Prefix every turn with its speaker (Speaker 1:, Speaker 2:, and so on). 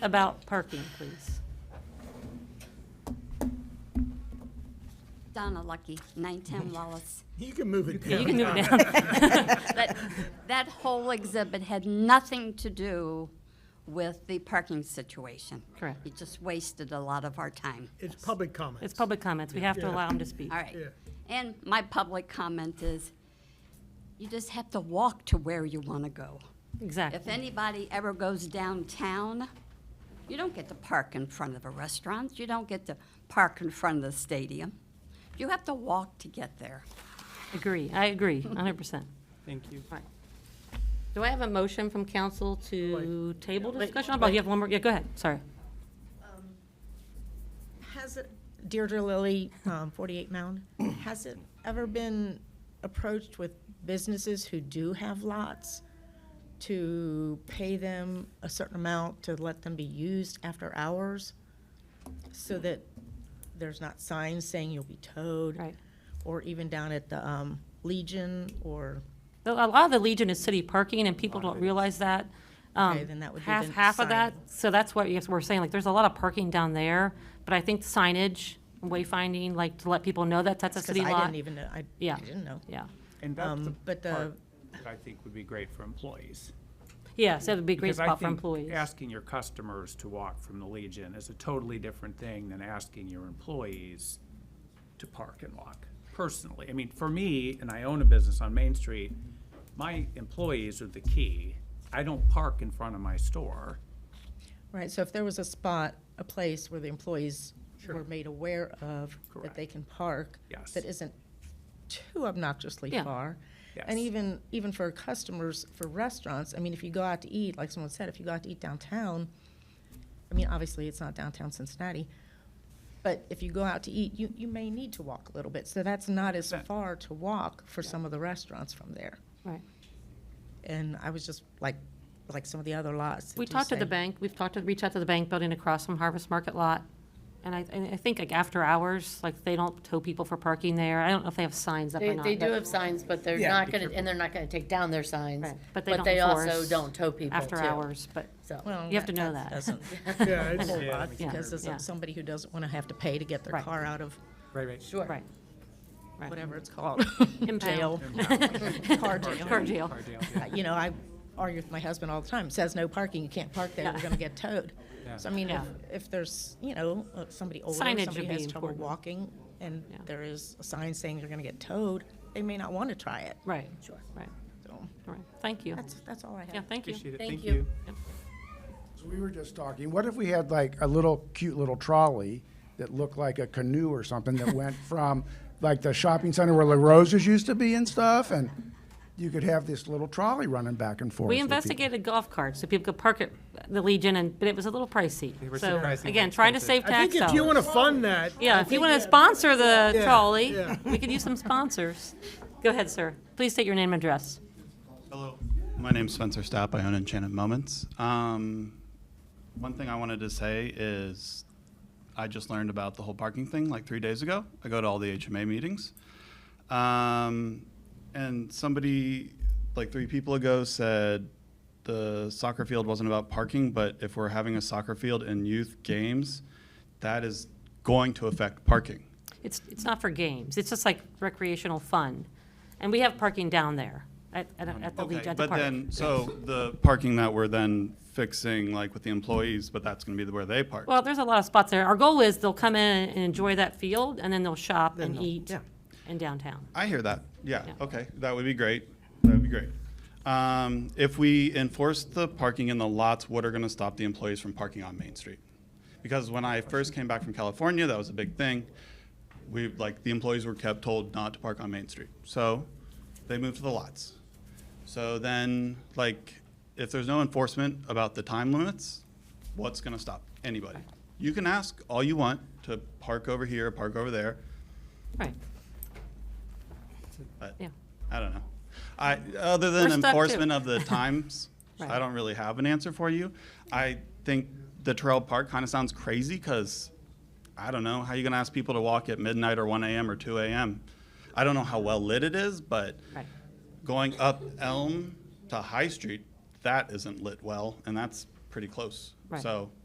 Speaker 1: about parking, please.
Speaker 2: Donna Lucky, 910 Wallace.
Speaker 3: You can move it
Speaker 1: Yeah,
Speaker 3: down.
Speaker 1: You can move it down.
Speaker 2: That, that whole exhibit had nothing to do with the parking situation.
Speaker 1: Correct.
Speaker 2: It just wasted a lot of our time.
Speaker 3: It's public comment.
Speaker 1: It's public comments. We have to
Speaker 3: Yeah.
Speaker 1: allow them to speak.
Speaker 2: All right.
Speaker 3: Yeah.
Speaker 2: And my public comment is, you just have to walk to where you want to go. If
Speaker 1: Exactly.
Speaker 2: anybody ever goes downtown, you don't get to park in front of a restaurant. You don't get to park in front of the stadium. You have to walk to get there.
Speaker 1: Agree. I agree, 100%.
Speaker 4: Thank you.
Speaker 1: Right. Do I have a motion from council to table discussion? Oh, you have one more, yeah, go ahead, sorry.
Speaker 5: Has it, Deirdre Lilly, um, 48 Mound, has it ever been approached with businesses who do have lots to pay them a certain amount to let them be used after hours? So that there's not signs saying you'll be towed?
Speaker 1: Right.
Speaker 5: Or even down at the um, Legion or,
Speaker 1: Though A lot of the Legion is city parking, and people don't realize that. Um,
Speaker 5: Okay, then that would be
Speaker 1: Half,
Speaker 5: the
Speaker 1: half of that, so that's what, yes, we're saying, like, there's a lot of parking down there, but I think signage, wayfinding, like, to let people know that that's a
Speaker 5: because
Speaker 1: city
Speaker 5: I
Speaker 1: lot.
Speaker 5: didn't even know, I
Speaker 1: Yeah.
Speaker 5: didn't know.
Speaker 1: Yeah,
Speaker 4: And that's the
Speaker 5: Um, But the,
Speaker 4: part that I think would be great for employees.
Speaker 1: yeah, so that'd be a great
Speaker 4: Because I
Speaker 1: spot for
Speaker 4: think
Speaker 1: employees.
Speaker 4: Asking your customers to walk from the Legion is a totally different thing than asking your employees to park and walk, personally. I mean, for me, and I own a business on Main Street, my employees are the key. I don't park in front of my store.
Speaker 5: Right, so if there was a spot, a place where the employees were made aware of, that they can park.
Speaker 4: Yes.
Speaker 5: That isn't too obnoxiously
Speaker 1: Yeah.
Speaker 5: far. And
Speaker 4: Yes.
Speaker 5: even, even for customers, for restaurants, I mean, if you go out to eat, like someone said, if you go out to eat downtown, I mean, obviously, it's not downtown Cincinnati, but if you go out to eat, you, you may need to walk a little bit. So that's not as
Speaker 4: Percent.
Speaker 5: far to walk for some of the restaurants from there.
Speaker 1: Right.
Speaker 5: And I was just like, like some of the other lots. that
Speaker 1: We
Speaker 5: do
Speaker 1: talked to the
Speaker 5: say-
Speaker 1: bank, we've talked to, reached out to the bank building across from Harvest Market Lot. And I, and I think like after hours, like they don't tow people for parking there. I don't know if they have signs up or
Speaker 6: They,
Speaker 1: not.
Speaker 6: they
Speaker 1: but
Speaker 6: do have signs, but they're
Speaker 4: Yeah,
Speaker 6: not
Speaker 4: be
Speaker 6: gonna,
Speaker 4: careful.
Speaker 6: and they're not gonna take down their signs.
Speaker 1: Right, but they don't
Speaker 6: also
Speaker 1: enforce
Speaker 6: don't tow people too.
Speaker 1: After hours, but,
Speaker 6: So,
Speaker 5: Well,
Speaker 1: You have to know that.
Speaker 5: doesn't-
Speaker 3: Yeah, it's-
Speaker 5: whole
Speaker 4: Yeah,
Speaker 5: lot
Speaker 4: we
Speaker 5: because
Speaker 1: Yeah.
Speaker 5: of somebody who doesn't want to have to pay to get their
Speaker 1: Right.
Speaker 5: car out of
Speaker 4: Right, right.
Speaker 6: sure.
Speaker 1: right. Right.
Speaker 5: whatever it's called, jail, car jail.
Speaker 1: Car jail.
Speaker 5: You know, I argue with my husband all the time, It says no parking, you can't park there, you're going to get towed. So I mean, if,
Speaker 1: Yeah.
Speaker 5: if there's, you know, uh, somebody older,
Speaker 1: Signage would
Speaker 5: somebody
Speaker 1: be
Speaker 5: has trouble
Speaker 1: important.
Speaker 5: walking, and
Speaker 1: Yeah.
Speaker 5: there is a sign saying you're going to get towed, they may not want to try it.
Speaker 1: Right,
Speaker 6: Sure.
Speaker 1: right,
Speaker 5: So
Speaker 1: all right. Thank you.
Speaker 5: that's, that's all I have.
Speaker 1: Yeah, thank you.
Speaker 4: Appreciate it.
Speaker 6: Thank
Speaker 4: Thank
Speaker 6: you.
Speaker 4: you.
Speaker 7: So we were just talking, what if we had like a little cute little trolley that looked like a canoe or something that went from like the shopping center where La Rosa's used to be and stuff and you could have this little trolley running back and forth.
Speaker 1: We
Speaker 7: with people.
Speaker 1: investigated golf carts, so people could park at the Legion, and, but it was a little pricey.
Speaker 4: They were
Speaker 1: So,
Speaker 4: surprisingly
Speaker 1: again, trying to save
Speaker 4: expensive.
Speaker 3: I
Speaker 1: tax
Speaker 3: think if you want
Speaker 1: dollars.
Speaker 3: to fund that,
Speaker 1: Yeah, if you want to sponsor the
Speaker 3: Yeah,
Speaker 1: trolley,
Speaker 3: yeah.
Speaker 1: we could use some sponsors. Go ahead, sir. Please state your name and address.
Speaker 8: Hello, my name's Spencer Stapp. I own Enchanted Moments. Um, one thing I wanted to say is I just learned about the whole parking thing like three days ago. I go to all the HMA meetings. Um, and somebody, like three people ago, said the soccer field wasn't about parking, but if we're having a soccer field in youth games, that is going to affect parking.
Speaker 1: It's, it's not for games. It's just like recreational fun. And we have parking down there at, at, at the Legion,
Speaker 8: Okay,
Speaker 1: at the
Speaker 8: but
Speaker 1: park.
Speaker 8: then, so the parking that we're then fixing, like with the employees, but that's gonna be the- where they park.
Speaker 1: Well, there's a lot of spots there. Our goal is they'll come in and enjoy that field, and then they'll shop and eat in downtown.
Speaker 8: I hear that, yeah,
Speaker 1: Yeah.
Speaker 8: okay, that would be great, that would be great. Um, if we enforce the parking in the lots, what are gonna stop the employees from parking on Main Street? Because when I first came back from California, that was a big thing. We, like, the employees were kept told not to park on Main Street, so they moved to the lots. So then, like, if there's no enforcement about the time limits, what's gonna stop anybody? You can ask all you want to park over here, park over there,
Speaker 1: Right,
Speaker 8: but
Speaker 1: yeah.
Speaker 8: I don't know. I, other
Speaker 1: We're
Speaker 8: than
Speaker 1: stuck too.
Speaker 8: enforcement of the times,
Speaker 1: Right.
Speaker 8: I don't really have an answer for you. I think the trail park kind of sounds crazy because I don't know how you gonna ask people to walk at midnight or one AM or two AM. I don't know how well lit it is, but
Speaker 1: Right.
Speaker 8: going up Elm to High Street, that isn't lit well, and that's pretty close.
Speaker 1: Right.
Speaker 8: So